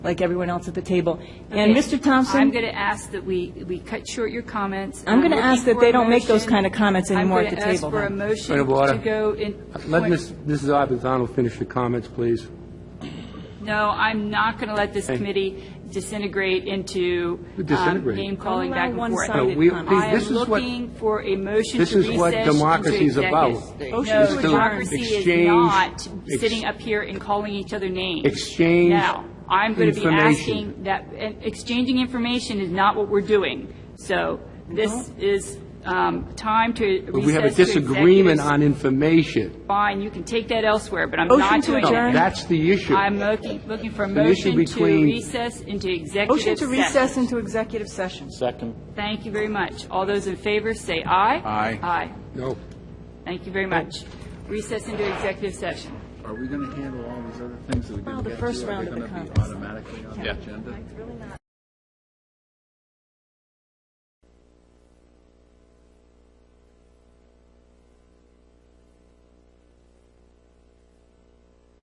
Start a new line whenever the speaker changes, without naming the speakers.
like everyone else at the table. And
Okay.
Mr. Thompson?
I'm going to ask that we, we cut short your comments.
I'm gonna
looking
ask that
for
they
a
don't make those
motion.
kind of comments anymore at the table,
I'm going
then.
to ask for
Point
a
of order.
motion to go in.
Let
point-
Ms. Mrs. Abuthano finish her comments, please.
No, I'm not going to let this
Hey.
committee disintegrate into um,
Disintegrate.
name calling
Don't
back
allow
and forth.
No,
one-sided
we-
comments.
please,
I am
this is what-
looking for a motion to
This
recess.
is what
into
democracy is about.
executive.
Motion to
No,
adjourn.
democracy is
Exchange-
not
ex-
sitting up here and calling each other names.
Exchange
Now, I'm going to be
information.
asking that, and exchanging information is not what we're doing. So this is um, time to recess to
But we have a disagreement
executives.
on information.
Fine, you can take that elsewhere, but I'm
Motion
not
to
doing
No,
adjourn.
it.
that's the issue.
I'm looking, looking for a
an
motion
issue
to
between-
recess into
Motion
executive
to
session.
recess into executive session.
Second.
Thank you very much. All those in favor, say aye.
Aye.
Aye.
No.
Thank you very much. Recess into executive session.
Are we going to handle all these other things that we
Well,
didn't
the
get to?
first
Are
round
they
of the
going to be
conference.
automatically on the agenda?